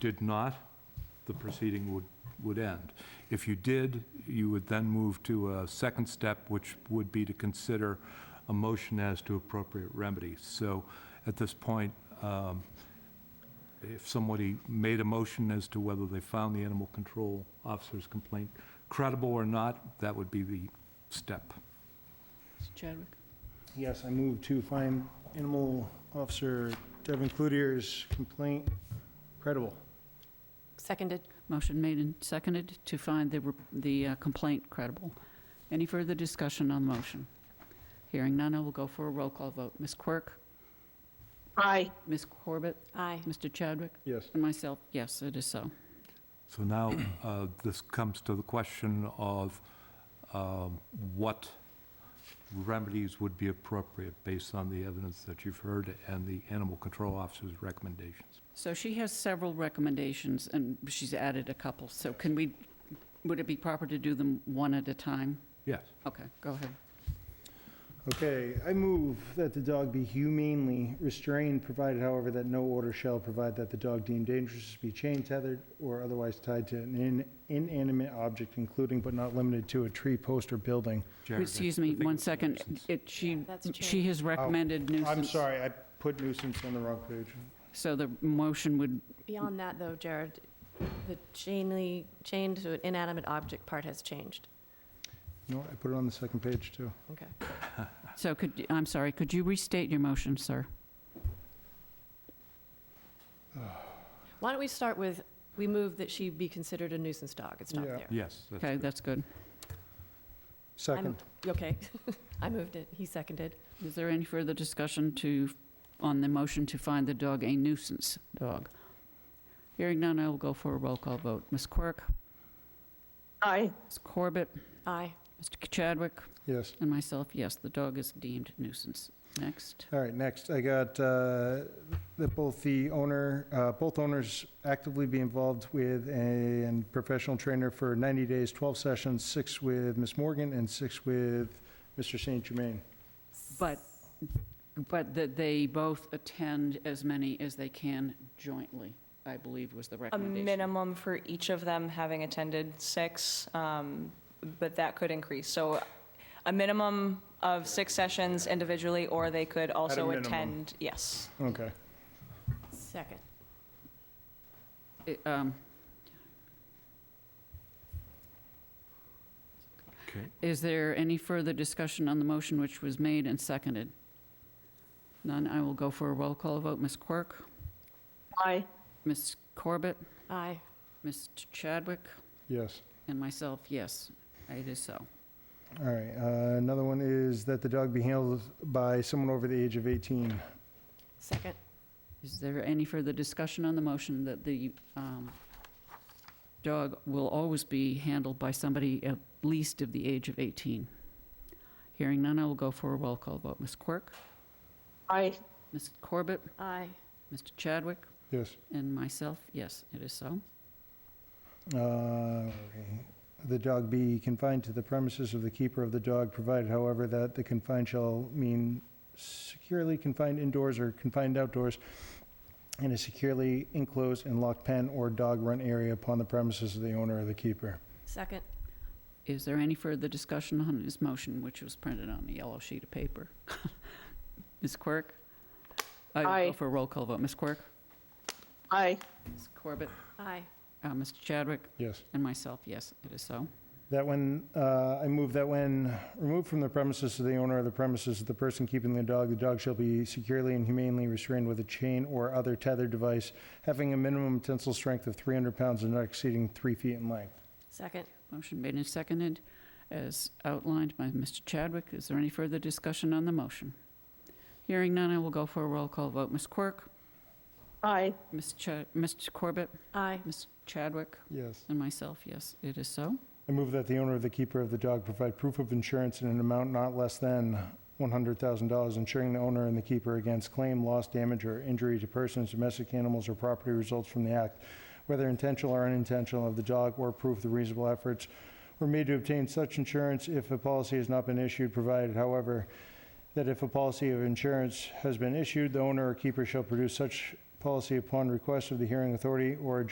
did not, the proceeding would, would end. If you did, you would then move to a second step, which would be to consider a motion as to appropriate remedy. So at this point, um, if somebody made a motion as to whether they found the animal control officer's complaint credible or not, that would be the step. Mr. Chadwick? Yes, I move to find Animal Officer Devin Cloutier's complaint credible. Seconded. Motion made and seconded to find the, re- the uh, complaint credible. Any further discussion on the motion? Hearing none, I will go for a roll call vote. Ms. Quirk? Aye. Ms. Corbett? Aye. Mr. Chadwick? Yes. And myself, yes, it is so. So now, uh, this comes to the question of um, what remedies would be appropriate based on the evidence that you've heard and the animal control officer's recommendations. So she has several recommendations, and she's added a couple, so can we, would it be proper to do them one at a time? Yes. Okay, go ahead. Okay, I move that the dog be humanely restrained, provided however that no order shall provide that the dog deemed dangerous be chained, tethered, or otherwise tied to an in- inanimate object, including but not limited to a tree, post, or building. Jared, I Excuse me, think one it's second. nuisance. It, she, That's she has recommended nuisance. I'm sorry, I put nuisance on the wrong page. So the motion would, Beyond that, though, Jared, the chainly, chained to an inanimate object part has changed. No, I put it on the second page, too. Okay. so could, I'm sorry, could you restate your motion, sir? Why don't we start with, we move that she be considered a nuisance dog. It's not Yeah. there. Yes. that's Okay, good. that's good. Second. Okay. I moved it. He seconded. Is there any further discussion to, on the motion to find the dog a nuisance dog? Hearing none, I will go for a roll call vote. Ms. Quirk, Aye. Ms. Corbett, Aye. Mr. Chadwick, Yes. and myself, yes, the dog is deemed nuisance. Next. All right, next, I got uh, that both the owner, uh, both owners actively be involved with a professional trainer for 90 days, 12 sessions, six with Ms. Morgan and six with Mr. St. Germain. But, but that they both attend as many as they can jointly, I believe was the A recommendation. minimum for each of them having attended six, um, but that could increase. So a minimum of six sessions individually, or they could also minimum. attend, yes. Okay. Second. It, um, Okay. Is there any further discussion on the motion which was made and seconded? None, I will go for a roll call vote. Ms. Quirk? Aye. Ms. Corbett? Aye. Mr. Chadwick? Yes. And myself, yes, it is so. All right, uh, another one is that the dog be handled by someone over the age of 18. Second. Is there any further discussion on the motion that the um, dog will always be handled by somebody at least of the age of 18? Hearing none, I will go for a roll call vote. Ms. Quirk? Aye. Ms. Corbett? Aye. Mr. Chadwick? Yes. And myself, yes, it is so. Uh, okay. The dog be confined to the premises of the keeper of the dog, provided however that the confined shall mean securely confined indoors or confined outdoors in a securely enclosed and locked pen or dog run area upon the premises of the owner or the keeper. Second. Is there any further discussion on his motion, which was printed on a yellow sheet of paper? Ms. Quirk? I will go Aye. for a roll call vote. Ms. Quirk? Aye. Ms. Corbett? Aye. uh, Mr. Chadwick? Yes. And myself, yes, it is so. That when, uh, I move that when removed from the premises of the owner or the premises of the person keeping the dog, the dog shall be securely and humanely restrained with a chain or other tethered device having a minimum tensile strength of 300 pounds and not exceeding three feet in length. Second. Motion made and seconded as outlined by Mr. Chadwick. Is there any further discussion on the motion? Hearing none, I will go for a roll call vote. Ms. Quirk? Aye. Ms. Cha- Mr. Corbett? Aye. Ms. Chadwick? Yes. And myself, yes, it is so. I move that the owner or the keeper of the dog provide proof of insurance in an amount not less than $100,000, insuring the owner and the keeper against claim, loss, damage, or injury to persons, domestic animals, or property results from the act, whether intentional or unintentional, of the dog, or proof the reasonable efforts were made to obtain such insurance if a policy has not been issued, provided, however, that if a policy of insurance has been issued, the owner or keeper shall produce such policy upon request of the hearing authority or a